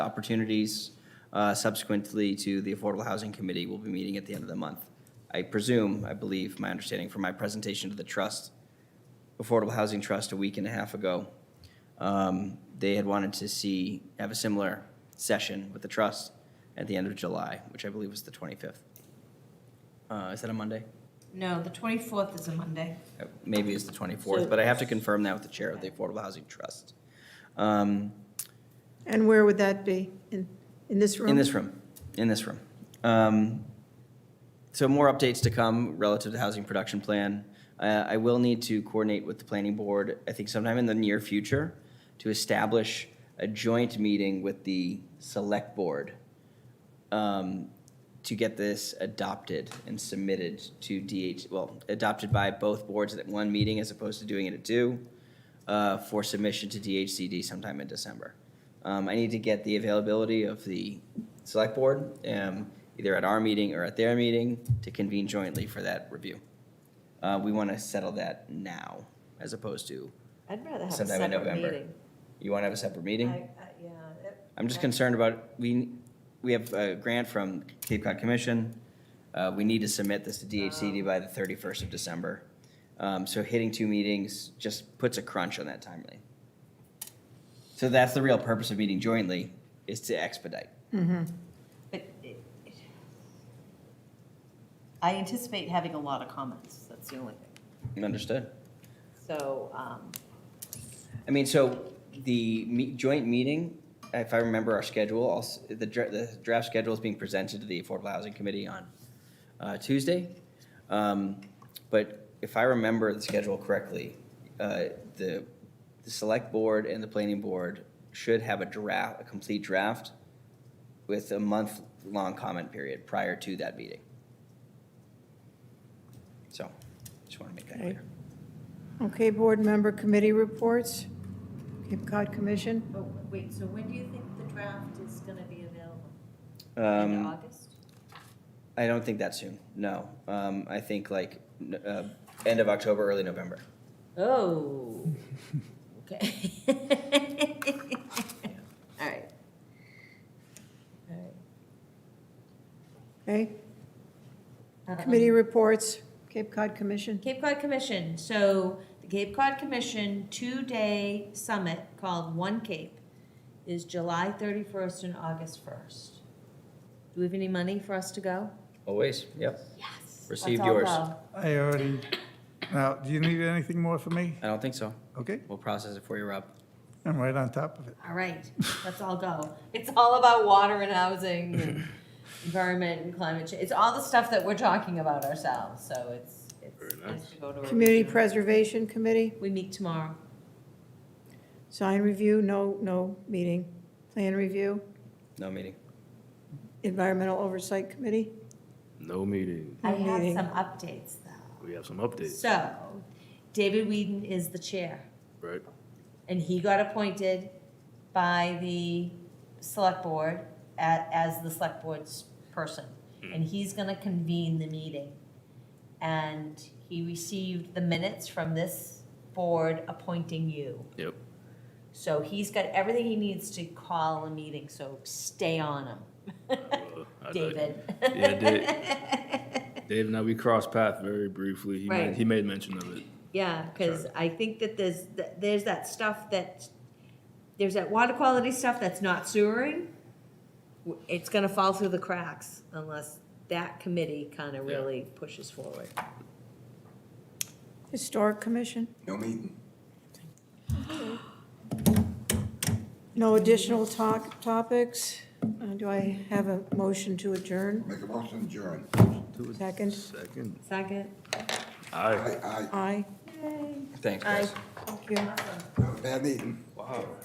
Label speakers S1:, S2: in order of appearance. S1: opportunities. Uh, Subsequently to the Affordable Housing Committee, we'll be meeting at the end of the month. I presume, I believe, my understanding from my presentation to the trust, Affordable Housing Trust a week and a half ago, um, they had wanted to see, have a similar session with the trust at the end of July, which I believe was the 25th. Uh, Is that a Monday?
S2: No, the 24th is a Monday.
S1: Uh, Maybe it's the 24th, but I have to confirm that with the chair of the Affordable Housing Trust. Um,
S3: And where would that be? In, in this room?
S1: In this room, in this room. Um, So more updates to come relative to housing production plan. Uh, I will need to coordinate with the planning board, I think sometime in the near future, to establish a joint meeting with the select board um, to get this adopted and submitted to DH, well, adopted by both boards at one meeting as opposed to doing it at two, uh, for submission to DHCD sometime in December. Um, I need to get the availability of the select board, um, either at our meeting or at their meeting, to convene jointly for that review. Uh, we want to settle that now, as opposed to,
S4: I'd rather have a
S1: Sometime in
S4: separate
S1: November.
S4: meeting.
S1: you want to have a separate meeting?
S4: I- I- yeah, it-
S1: I'm just
S4: I-
S1: concerned about, we, we have a grant from Cape Cod Commission. Uh, we need to submit this to DHCD by the thirty-first of December. Um, so hitting two meetings just puts a crunch on that timeline. So that's the real purpose of meeting jointly, is to expedite.
S4: But it- it- I anticipate having a lot of comments, that's the only thing.
S1: Understood?
S4: So, um,
S1: I mean, so the me- joint meeting, if I remember our schedule, I'll s- the dra- the draft schedule is being presented to the Affordable Housing Committee on uh, Tuesday. Um, But if I remember the schedule correctly, uh, the, the Select Board and the Planning Board should have a draft, a complete draft with a month-long comment period prior to that meeting. So, just want to make that
S3: Okay.
S1: clear.
S3: Okay, board member committee reports, Cape Cod Commission.
S4: but wait, so when do you think the draft is going to be available? In
S1: Um,
S4: August?
S1: I don't think that soon. No, um, I think like n- uh, end of October, early November.
S4: Oh, okay. All right. All right.
S3: Okay,
S4: Um,
S3: committee reports, Cape Cod Commission.
S4: Cape Cod Commission, so the Cape Cod Commission two-day summit called One Cape is July thirty-first and August first. Do we have any money for us to go?
S1: Always, yep.
S4: Yes.
S1: Receive yours.
S5: I already, now, do you need anything more from me?
S1: I don't think so.
S5: Okay,
S1: We'll process it for you, Rob.
S5: I'm right on top of it.
S4: All right, let's all go. It's all about water and housing and environment and climate change. It's all the stuff that we're talking about ourselves, so it's, it's nice to go to. a
S3: Community
S4: regional-
S3: Preservation Committee,
S4: We meet tomorrow.
S3: sign review, no, no meeting. Plan review,
S1: No meeting.
S3: Environmental Oversight Committee.
S6: No meeting.
S4: I
S3: No
S4: have
S3: meeting.
S4: some updates though.
S6: We have some updates,
S4: So, David Whedon is the chair,
S6: right?
S4: and he got appointed by the select board at, as the select board's person. And he's gonna convene the meeting. And he received the minutes from this board appointing you.
S6: Yep.
S4: So he's got everything he needs to call a meeting, so stay on him,
S6: Uh, I-
S4: David.
S6: Yeah, Dave and I, we crossed path very briefly. He
S4: Right.
S6: made, he made mention of it.
S4: Yeah, because I think that there's, that there's that stuff that, there's that water quality stuff that's not sewering. W- It's gonna fall through the cracks unless that committee kind of
S6: Yeah.
S4: really pushes forward.
S3: Historic Commission? No meeting. No additional talk, topics. Uh, Do I have a motion to adjourn?
S7: Make a motion, adjourn.
S3: Second,
S6: Second.
S4: Second?
S6: Aye.
S7: Aye, aye.
S3: aye,
S1: Thanks, guys.
S4: Aye.
S3: thank you.
S7: Bad meeting.
S6: Wow.